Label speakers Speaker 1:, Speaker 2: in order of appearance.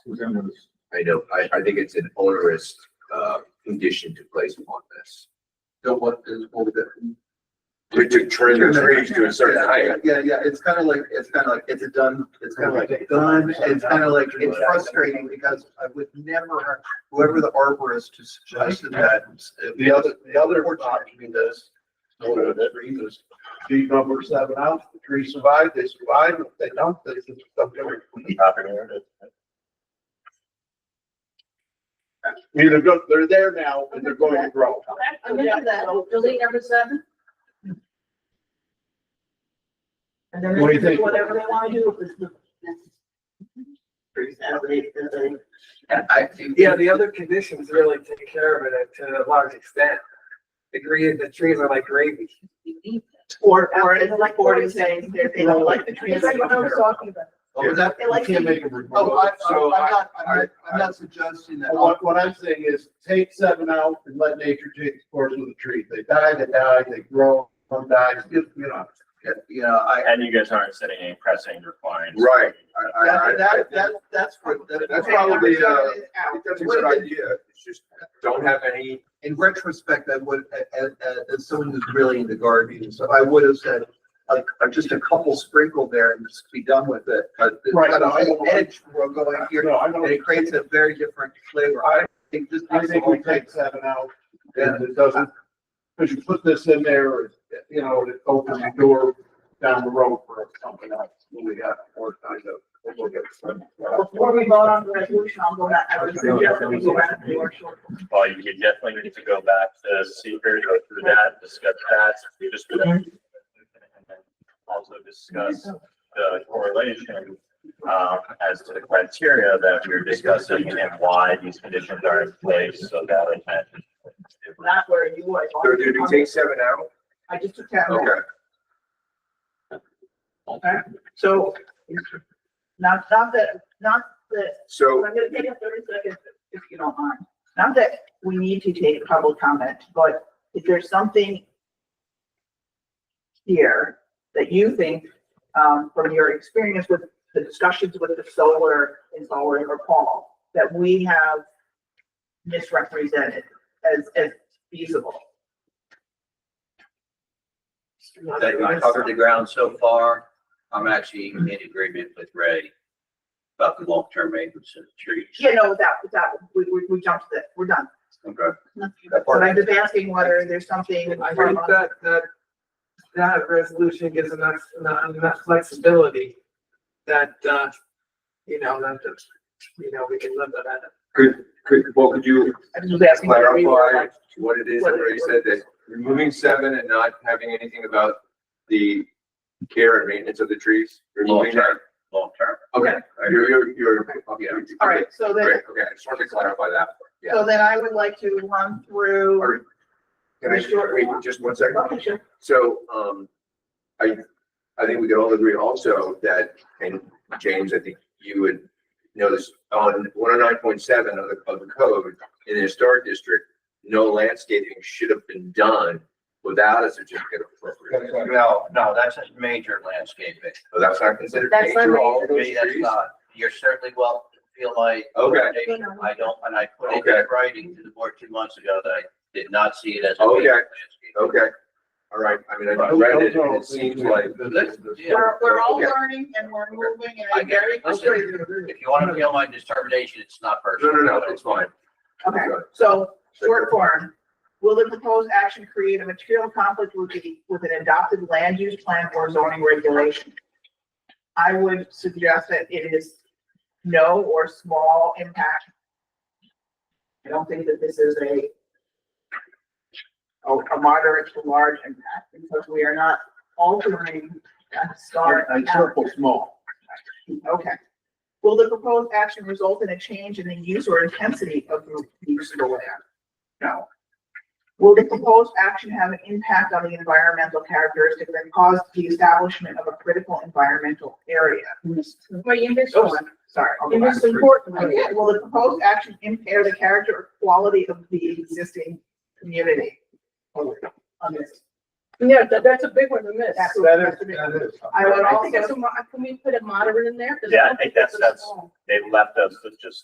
Speaker 1: I know, I, I think it's an onerous, uh, condition to place upon this.
Speaker 2: Don't want to hold it.
Speaker 1: To, to trim the trees to a certain height.
Speaker 2: Yeah, yeah, it's kind of like, it's kind of like, it's a done, it's kind of like a done, it's kind of like, it's frustrating because I would never, whoever the arborist who suggested that.
Speaker 3: uh, The other, the other option is, so that reasons, the number seven out, the three survive, they survive, if they don't, they just don't do it. Either go, they're there now and they're going to grow.
Speaker 4: I'm into that, delete number seven. And then
Speaker 3: What do
Speaker 4: they
Speaker 3: you think?
Speaker 4: can do whatever they wanna do. with the-
Speaker 2: I think-
Speaker 5: Yeah, the other conditions really take care of it to a large extent. The green, the trees are like gravy.
Speaker 6: Or, or
Speaker 4: After
Speaker 6: it's
Speaker 4: the
Speaker 6: like
Speaker 4: recording
Speaker 6: Gordon saying, they they don't like the trees.
Speaker 4: It's like what I was talking about.
Speaker 2: What was that?
Speaker 6: They like
Speaker 3: Oh, You can't
Speaker 6: the-
Speaker 3: make them remove.
Speaker 2: Oh, I, I'm
Speaker 3: So I,
Speaker 2: not, I'm not, I'm not suggesting that.
Speaker 3: what, what I'm saying is take seven out and let nature take its course with the trees. They die, they die, they grow, some die, you know.
Speaker 2: Yeah, I,
Speaker 7: And you guys aren't setting any pressing requirements.
Speaker 1: Right. I- I-
Speaker 2: that, that,
Speaker 1: I-
Speaker 2: that, that's what, that-
Speaker 1: That's
Speaker 2: that's
Speaker 6: Okay, number
Speaker 1: probably, uh,
Speaker 6: seven is out.
Speaker 1: That's a good idea. It's just, don't have any
Speaker 2: in retrospect, I would, as, as someone who's really into gardening, so I would have said, like, uh, just a couple sprinkle there and just be done with it, but it's
Speaker 3: Right.
Speaker 2: got a whole edge will go in here,
Speaker 3: No, I
Speaker 2: and
Speaker 3: don't,
Speaker 2: it creates a very different flavor. I think this.
Speaker 3: I think we take seven out and it doesn't, because you put this in there, you know, it opens the door down the road for something else. We got more kind of. we'll get some.
Speaker 6: Before we vote on the resolution, I'll go back, I would suggest that we go back to our short.
Speaker 7: Well, you could definitely need to go back to secret, go through that, discuss that, we just. and then Also discuss the correlation, um, as to the criteria that we we're discussing and why these conditions are in place so that. it can-
Speaker 6: Not where you were.
Speaker 1: So did we take seven out?
Speaker 6: I just took that.
Speaker 1: Okay.
Speaker 6: Okay, so. Not, not that, not that,
Speaker 1: So,
Speaker 6: I'm gonna take a thirty seconds if you don't mind. Not that we need to take public comment, but if there's something here that you think, um, from your experience with the discussions with the solar and solar and Paul, that we have misrepresented as, as feasible.
Speaker 8: that I covered the ground so far, I'm actually in agreement with Ray about the long-term maintenance of the trees.
Speaker 6: Yeah, no, without, without, we, we, we jumped that, we're done.
Speaker 8: Okay.
Speaker 6: But I'm just asking whether there's something.
Speaker 5: I think that, that, that resolution gives enough, enough, enough flexibility that, uh, you know, that, that, you know, we can live with that.
Speaker 1: could, could, well, could you
Speaker 6: I'm just asking. whether we were
Speaker 1: clarify
Speaker 6: like-
Speaker 1: what it is that Ray said that removing seven and not having anything about the care and maintenance of the trees? Removing that?
Speaker 8: Long-term, long-term.
Speaker 1: Okay, you're, you're, you're, okay.
Speaker 6: All right, so then,
Speaker 1: Great, okay, I just wanted to clarify that. Yeah.
Speaker 6: so then I would like to run through.
Speaker 1: Can I, wait, just one second?
Speaker 6: Okay, sure.
Speaker 1: So, um, I, I think we could all agree also that, and James, I think you would know this, on one oh nine point seven of the, of the code, in the historic district, no landscaping should have been done without a certificate of appropriate.
Speaker 8: No, no, that's a major landscaping.
Speaker 1: So that's not considered
Speaker 4: That's not
Speaker 1: major, all of
Speaker 8: To
Speaker 1: those
Speaker 8: me, that's
Speaker 1: trees?
Speaker 8: not, you're certainly welcome to feel my
Speaker 1: Okay,
Speaker 8: recommendation. I don't, and I put it
Speaker 1: Okay.
Speaker 8: in writing to the board two months ago that I did not see it as. a
Speaker 1: Okay.
Speaker 8: major landscaping.
Speaker 1: okay. All right, I mean, I read it, and it seems like,
Speaker 8: Let's- yeah.
Speaker 6: We're, we're all
Speaker 1: Okay.
Speaker 6: learning and we're moving and
Speaker 8: I
Speaker 6: I'm
Speaker 8: get
Speaker 6: very.
Speaker 8: it. Listen, if you want to feel my determination, it's not
Speaker 1: no,
Speaker 8: personal.
Speaker 1: no, no, it's fine.
Speaker 6: Okay, so short form, will the proposed action create a material conflict with the, with an adopted land use plan or zoning regulation? I would suggest that it is no or small impact. I don't think that this is a a a moderate to large impact because we are not altering that start.
Speaker 3: I circle small.
Speaker 6: Okay. Will the proposed action result in a change in the use or intensity of the use of the land? No. Will the proposed action have an impact on the environmental characteristic that caused the establishment of a critical environmental area?
Speaker 4: Well, you missed
Speaker 6: Oh,
Speaker 4: one.
Speaker 6: sorry. I'll go
Speaker 4: You
Speaker 6: back.
Speaker 4: missed an important. one.
Speaker 6: Okay, Will the proposed action impair the character or quality of the existing community? On this.
Speaker 9: Yeah, that, that's a big one to miss.
Speaker 6: That's-
Speaker 2: That is, that is.
Speaker 6: I would
Speaker 9: I
Speaker 6: also.
Speaker 9: think that's a, mo- can we put a moderate in there? 'Cause
Speaker 7: Yeah, I
Speaker 9: don't
Speaker 7: think that's-
Speaker 9: a
Speaker 7: that's-
Speaker 9: small.
Speaker 7: They left us with just